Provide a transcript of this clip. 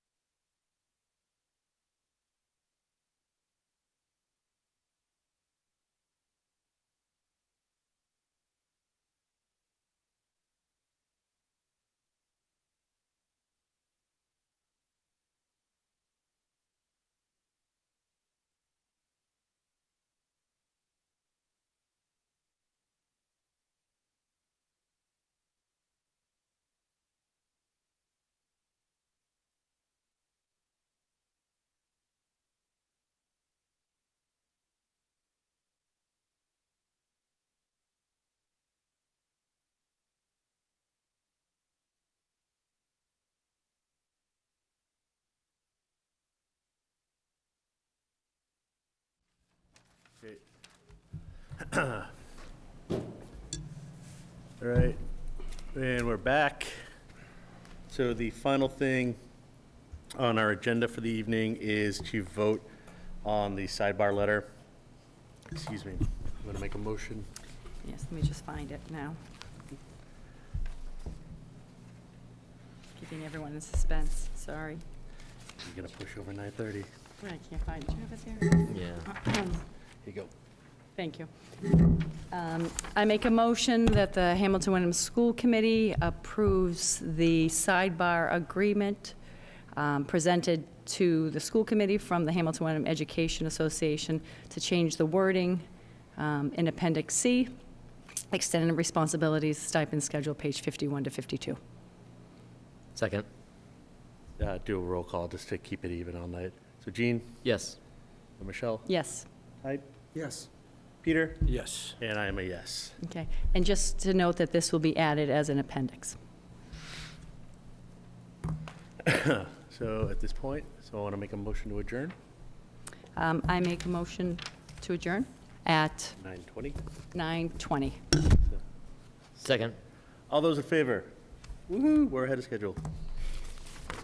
Great. All right, and we're back. So the final thing on our agenda for the evening is to vote on the sidebar letter. Excuse me, I'm gonna make a motion. Yes, let me just find it now. Keeping everyone in suspense, sorry. I'm gonna push over 9:30. Here I can't find it. Do you have Yeah. it there? you go. Thank you. Um, I make a motion that the Hamilton Wyndham School Committee approves the sidebar agreement um, presented to the school committee from the Hamilton Wyndham Education Association to change the wording um, in Appendix C, extended responsibilities, stipend schedule, page 51 to 52. Second. Uh, Do a roll call just to keep it even all night. So Jean, Yes. Michelle, Yes, I, Yes. Peter, Yes. and I am a yes. okay. And just to note that this will be added as an appendix. So at this point, so I want to make a motion to adjourn, Um, I make a motion to adjourn at 9:20. 9:20. Second. All those in favor? Woo-hoo, we're ahead of schedule.